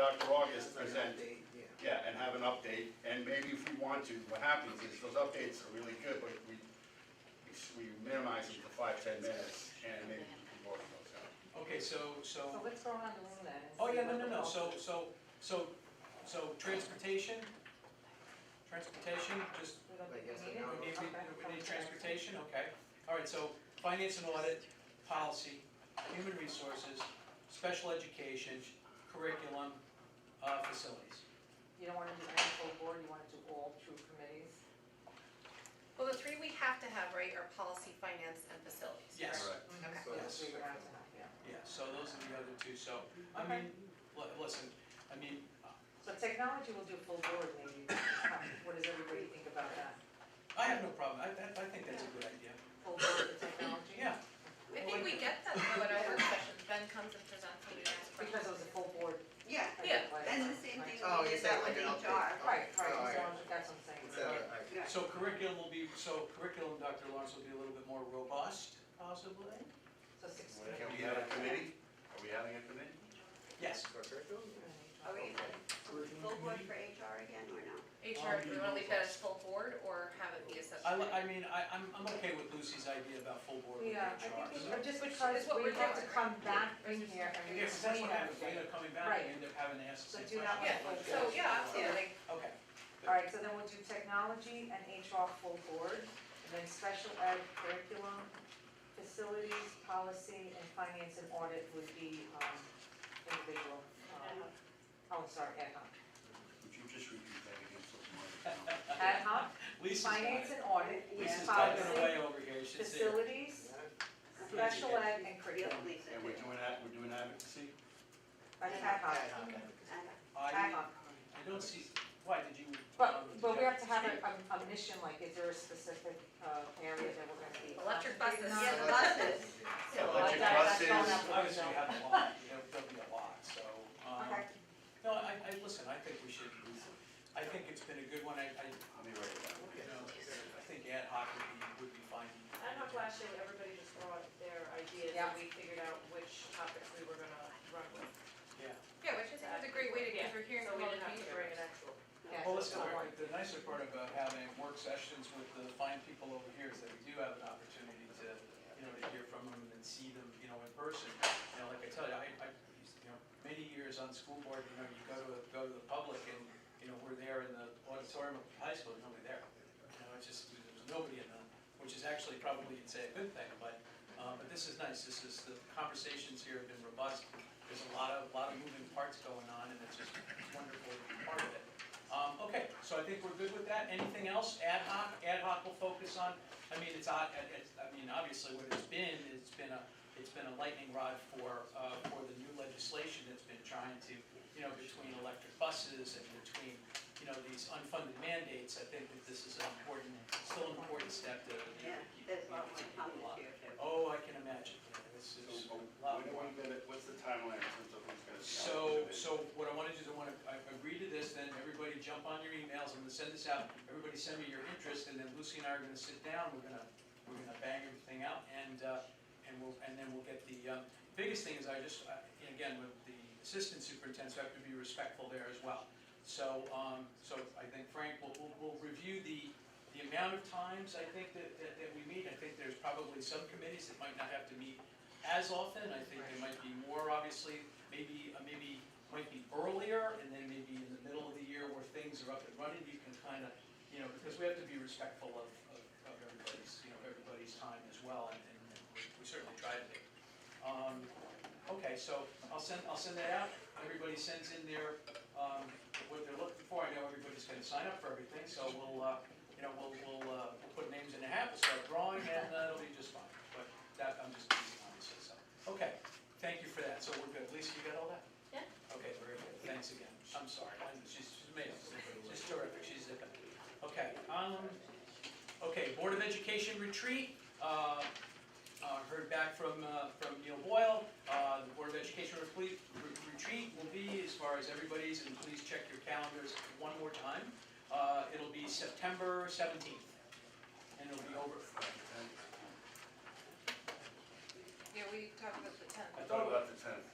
after August, present, Update, yeah. yeah, and have an update, and maybe if we want to, what happens is, those updates are really good, but we, we minimize them to five, ten minutes, and maybe we can work those out. Okay, so, So so, let's go around the room then. and oh, see yeah, no, what no, the no, bulk so, is. so, so, so transportation, transportation, just, We don't Like, think yes, we need I it? know. we need, Okay, we- we okay. need transportation, okay. All right, so finance and audit, policy, human resources, special education, curriculum, uh, facilities. You don't want to do any full board, you want to do all true committees? Well, the three we have to have, right, are policy, finance, and facilities. Yes. correct? Okay. Yeah, Yes. we would have to have, yeah. Yeah, so those are the other two, so, I mean, li- listen, I mean, uh, So technology will do full board maybe, this time. what does everybody think about that? I have no problem, I, I I think that's a good idea. Full board with technology? Yeah, I think we get that though at our work sessions, Ben comes and presents and we ask Because it was questions. a full board. Yeah, I Yeah, think, like, and the same thing Oh, we you did said that like with an update. HR. Right, right, so Oh, yeah. that's what I'm It's, saying. uh, I- Yeah. so curriculum will be, so curriculum, Dr. Lawrence, will be a little bit more robust, possibly? So six. Can we have a committee? Are we having a committee? Yes. For curriculum? Are Oh, we full board for HR again or no? HR, do we want to leave that as full board or have it be a I, li- subcommittee? I mean, I, I'm, I'm okay with Lucy's idea about full board with Yeah, HR. I think we so- should, just because It's what we we're have to doing. come back in here Yeah, and we 'cause that's explain what happens, we end everything. up coming back and Right. we end up having to ask the So same do question. that one Yeah, first. so, yeah, absolutely. Okay. Alright, so then we'll do technology and HR full board, and then special ed curriculum, facilities, policy, and finance and audit would be, um, individual, Uh, um, oh, sorry, ad hoc. Would you just repeat that again so tomorrow? Ad hoc, Lisa's got finance it. and audit, Lisa's typing policy, away over here, she's there. facilities, special ed and curriculum. Lisa. And we're doing that, we're doing advocacy? That's ad hoc, And ad I, hoc. I don't see, why, did you? um, But, but we have to have did a, a, a mission, like, is there a specific, uh, area that we're gonna be? Electric buses. concentrating on? Yeah, the buses. So, Electric like, that- that's buses. you- going up the Obviously, we window. have a lot, There- there'll be a lot, so, um, Okay. no, I, I, listen, I think we should, I think it's been a good one, I, I, I'll be right back. you know, I think ad hoc would be, would be fine. I don't know if last year everybody just brought their ideas Yeah. and we figured out which topics we were gonna run with. Yeah. Yeah, which I think is a great way to, because we're hearing So from we other didn't have to bring an actual. people. Yeah, Well, listen, so- Eric, the nicer part about having work sessions with the fine people over here is that we do have an opportunity to, you know, to hear from them and see them, you know, in person. You know, like I tell you, I, I, you know, many years on school board, you know, you go to, go to the public and, you know, we're there in the auditorium of the high school, nobody there. You know, it's just, there was nobody in them, which is actually probably, you'd say, a good thing, but, um, but this is nice, this is, the conversations here have been robust. There's a lot of, lot of moving parts going on, and it's just wonderful to be part of it. Um, okay, so I think we're good with that. Anything else? Ad hoc, ad hoc will focus on, I mean, it's, odd- uh, it's, I mean, obviously what it's been, it's been a, it's been a lightning rod for, uh, for the new legislation that's been trying to, you know, between electric buses and between, you know, these unfunded mandates. I think that this is an important, still an important step to, you know, Yeah, keep. there's a lot more to come keep a lot. this year too. Oh, I can imagine. Yeah, This is So, a when lot do more. we get it? what's the timeline in terms of who's gonna be? So, so what I want to do is I want to, I agree to this, then everybody jump on your emails, I'm going to send this out, everybody send me your interest, and then Lucy and I are going to sit down, we're going to, we're going to bang everything out, and, uh, and we'll, and then we'll get the, um, biggest thing is I just, I- and again, with the assistant superintendent, so I have to be respectful there as well. So, um, so I think Frank, we'll, we'll, we'll review the, the amount of times I think that, that, that we meet. I think there's probably some committees that might not have to meet as often. I think there might be more, obviously, maybe, uh, maybe, might be earlier, and then maybe in the middle of the year where things are up and running, you can kind of, you know, because we have to be respectful of, of, of everybody's, you know, everybody's time as well, and, and we- we certainly try to be. Um, okay, so I'll send, I'll send that out. Everybody sends in their, um, what they're looking for. I know everybody's gonna sign up for everything, so we'll, uh, you know, we'll, we'll, uh, we'll put names in a hat, we'll start drawing, and uh, it'll be just fine. But that, I'm just teasing, obviously, so, okay, thank you for that, so we're good. Lisa, you got all that? Yeah. Okay, very good, thanks again. I'm sorry, I'm- she's she's amazing, she's terrific, she's zipping. Okay, um, okay, Board of Education retreat, uh, uh, heard back from, uh, from Neil Boyle. Uh, The Board of Education replete- re- retreat will be, as far as everybody's, and please check your calendars one more time. Uh, It'll be September 17th, and it'll be over. Yeah, we talked about the I tenth. thought about the tenth.